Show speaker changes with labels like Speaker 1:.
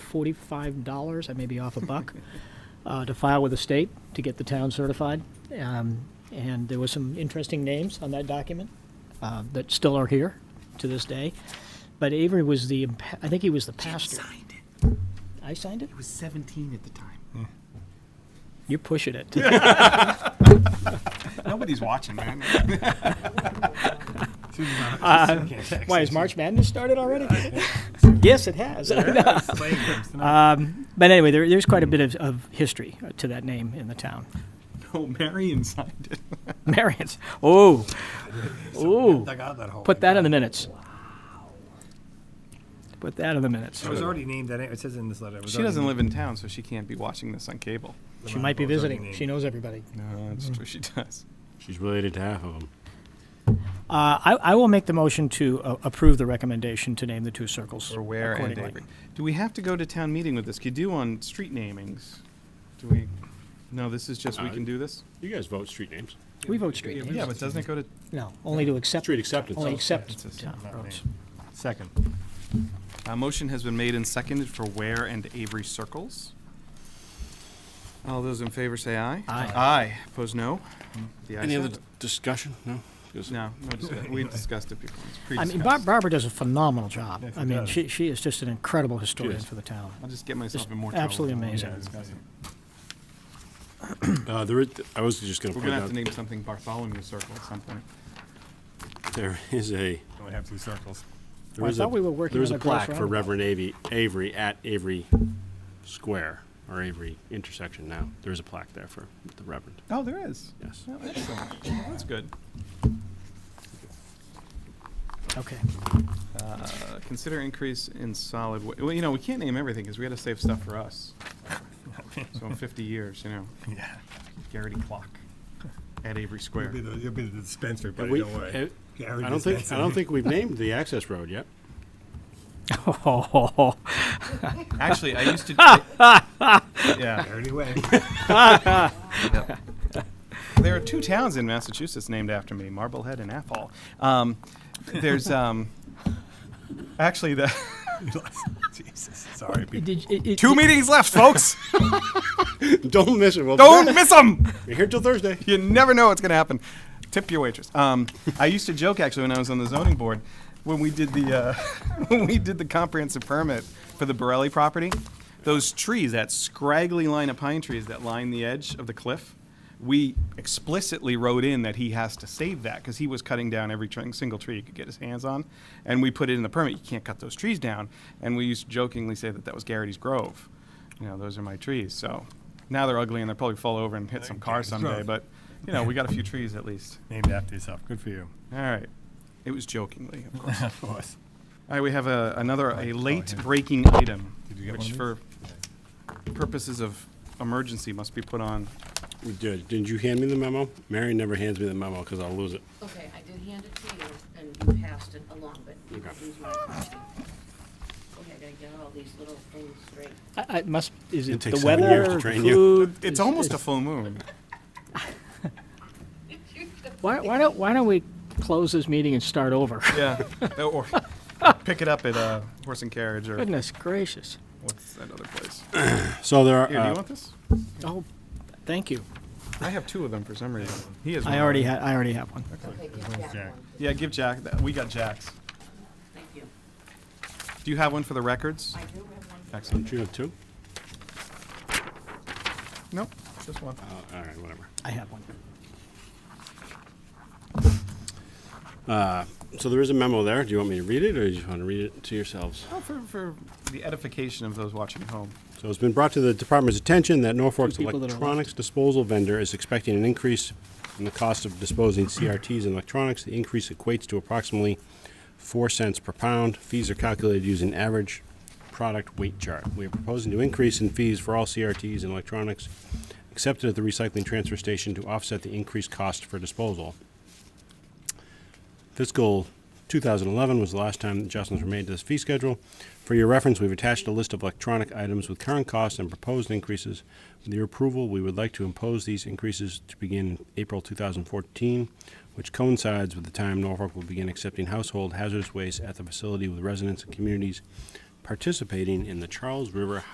Speaker 1: forty-five dollars, I may be off a buck, uh, to file with the state to get the town certified. Um, and there were some interesting names on that document uh, that still are here to this day. But Avery was the, impa- I think he was the pastor.
Speaker 2: Signed it.
Speaker 1: I signed it?
Speaker 2: It was 17 at the time.
Speaker 1: You're pushing it.
Speaker 2: Nobody's watching, man. uh,
Speaker 1: Uh, Why, has March Madness started already? Yes, it has. But anyway, there, there's quite a bit of, of history uh, to that name in the town.
Speaker 2: No, Marion signed Oh, it.
Speaker 1: Marion's. Oh, oh,
Speaker 3: Dug out that hole.
Speaker 1: put that in the minutes. Put that in the minutes.
Speaker 3: It was already named that. It says in this letter. it was
Speaker 2: She
Speaker 3: already
Speaker 2: doesn't
Speaker 3: named-
Speaker 2: live in town, so she can't be watching this on cable. Mm.
Speaker 1: She might be
Speaker 3: it was already
Speaker 1: visiting.
Speaker 3: named.
Speaker 1: She knows everybody.
Speaker 2: No, that's true. She does.
Speaker 4: She's related to half of them.
Speaker 1: Uh, I, I will make the motion to uh, approve the recommendation to name the two circles
Speaker 2: Or where and
Speaker 1: accordingly.
Speaker 2: Avery. Do we have to go to town meeting with this? Could you do on street namings? Do we? No, this is just we
Speaker 4: Uh,
Speaker 2: can do this.
Speaker 4: You guys vote street names.
Speaker 1: We vote street names.
Speaker 2: Yeah, but doesn't it go to?
Speaker 1: No, only to accept.
Speaker 4: Street acceptance.
Speaker 1: Only
Speaker 4: Oh,
Speaker 1: accept
Speaker 2: acceptance is
Speaker 1: town
Speaker 2: not
Speaker 1: roads.
Speaker 3: Second.
Speaker 2: A motion has been made and seconded for Ware and Avery Circles. All those in favor say aye.
Speaker 1: Aye.
Speaker 2: Aye. Opposed, no. The ayes
Speaker 4: Any
Speaker 2: have
Speaker 4: other
Speaker 2: it.
Speaker 4: discussion? No. Because-
Speaker 2: No, no discussion. we discussed it before. It's
Speaker 1: I mean,
Speaker 2: pre-discussed.
Speaker 1: Bar- Barbara does a phenomenal job.
Speaker 3: Yes,
Speaker 1: I
Speaker 3: she
Speaker 1: mean,
Speaker 3: does.
Speaker 1: she, she is just an incredible historian
Speaker 4: is.
Speaker 1: for the town.
Speaker 2: I'll just get myself
Speaker 1: Just
Speaker 2: in more trouble.
Speaker 1: absolutely
Speaker 2: if I
Speaker 1: amazing.
Speaker 2: discuss it.
Speaker 4: Uh, there is, I was just going to
Speaker 2: We're gonna have to
Speaker 4: point
Speaker 2: name something Bartholomew Circle at some point.
Speaker 4: out, there is a,
Speaker 3: Only have two circles.
Speaker 4: there
Speaker 1: I
Speaker 4: is a,
Speaker 1: thought we were working
Speaker 4: there is
Speaker 1: on
Speaker 4: a
Speaker 1: a gross
Speaker 4: plaque for
Speaker 1: roundabout.
Speaker 4: Reverend Avery, Avery at Avery Square, or Avery intersection now. There is a plaque there for the Reverend,
Speaker 2: Oh, there is.
Speaker 4: yes.
Speaker 2: Oh, excellent. Well, That's good.
Speaker 1: Okay.
Speaker 2: Uh, Consider increase in solid, wa- well, you know, we can't name everything because we gotta save stuff for us. So in fifty years, you know,
Speaker 3: Yeah.
Speaker 2: Garrity Clock at Avery Square.
Speaker 3: You'll be the, you'll be the dispensary, buddy.
Speaker 4: We-
Speaker 3: don't worry.
Speaker 4: eh, I don't think, I don't think we've named the access road yet.
Speaker 1: Oh,
Speaker 2: Actually, I used to. I- yeah.
Speaker 3: Anyway.
Speaker 2: There are two towns in Massachusetts named after me, Marblehead and Athol. Um, there's um, actually the
Speaker 3: Jesus. Sorry. people.
Speaker 1: Did, it, it,
Speaker 2: two meetings left, folks.
Speaker 4: Don't miss it. We'll be
Speaker 2: Don't
Speaker 4: back.
Speaker 2: miss them.
Speaker 4: You're here till Thursday.
Speaker 2: You never know what's going to happen. Tip your waitress. Um, I used to joke actually when I was on the zoning board when we did the uh, when we did the comprehensive permit for the Borelli property. Those trees, that scraggly line of pine trees that line the edge of the cliff, we explicitly wrote in that he has to save that because he was cutting down every tr- single tree he could get his hands on, and we put it in the permit. You can't cut those trees down, and we used to jokingly say that that was Garrity's Grove. You know, those are my trees. So now they're ugly and they'll probably fall over and hit some car
Speaker 3: Garrity's
Speaker 2: someday.
Speaker 3: Grove.
Speaker 2: But you know, we got a few trees at least.
Speaker 3: Named after yourself. Good for you.
Speaker 2: All right. It was jokingly, of course.
Speaker 3: of course.
Speaker 2: All right, we have a, another, a
Speaker 3: Oh,
Speaker 2: late
Speaker 3: yeah.
Speaker 2: breaking item,
Speaker 3: Did you get
Speaker 2: which
Speaker 3: one
Speaker 2: for purposes of emergency must be put on.
Speaker 4: We did. Didn't you hand me the memo? Mary never hands me the memo because I'll lose it.
Speaker 5: Okay, I did hand it to you, and you passed it along, but you
Speaker 4: Okay.
Speaker 5: lose my copy. Okay, I gotta get all these little things straight.
Speaker 1: I, I must, is it
Speaker 4: takes
Speaker 1: the
Speaker 4: seven years
Speaker 1: weather,
Speaker 4: to train you.
Speaker 1: food?
Speaker 2: It's
Speaker 1: is-
Speaker 2: almost a
Speaker 1: is-
Speaker 2: full moon.
Speaker 1: Why, why don't, why don't we close this meeting and start over?
Speaker 2: Yeah. Or pick it up at uh, Horse and Carriage or
Speaker 1: Goodness gracious.
Speaker 2: what's that other place?
Speaker 4: So there are.
Speaker 2: Here, do
Speaker 4: uh,
Speaker 2: you want this?
Speaker 1: Oh, thank you.
Speaker 2: I have two of them for some reason. He has one.
Speaker 1: I already had, I already have one.
Speaker 5: Okay, give Jack
Speaker 3: Jack.
Speaker 5: one.
Speaker 2: Yeah, give Jack, that. we got Jack's.
Speaker 5: Thank you.
Speaker 2: Do you have one for the records?
Speaker 5: I do have one.
Speaker 2: Excellent.
Speaker 4: Do you have two?
Speaker 2: Nope, just one.
Speaker 4: Oh, all right, whatever.
Speaker 1: I have one.
Speaker 4: So there is a memo there. Do you want me to read it, or do you just want to read it to yourselves?
Speaker 2: Oh, for, for the edification of those watching at home.
Speaker 4: So it's been brought to the department's attention that Norfolk's
Speaker 1: Two people that are left.
Speaker 4: electronics disposal vendor is expecting an increase in the cost of disposing CRTs and electronics. The increase equates to approximately four cents per pound. Fees are calculated using average product weight chart. We are proposing to increase in fees for all CRTs and electronics accepted at the recycling transfer station to offset the increased cost for disposal. Fiscal 2011 was the last time adjustments were made to this fee schedule. For your reference, we've attached a list of electronic items with current costs and proposed increases. With your approval, we would like to impose these increases to begin in April 2014, which coincides with the time Norfolk will begin accepting household hazardous waste at the facility with residents and communities participating in the Charles River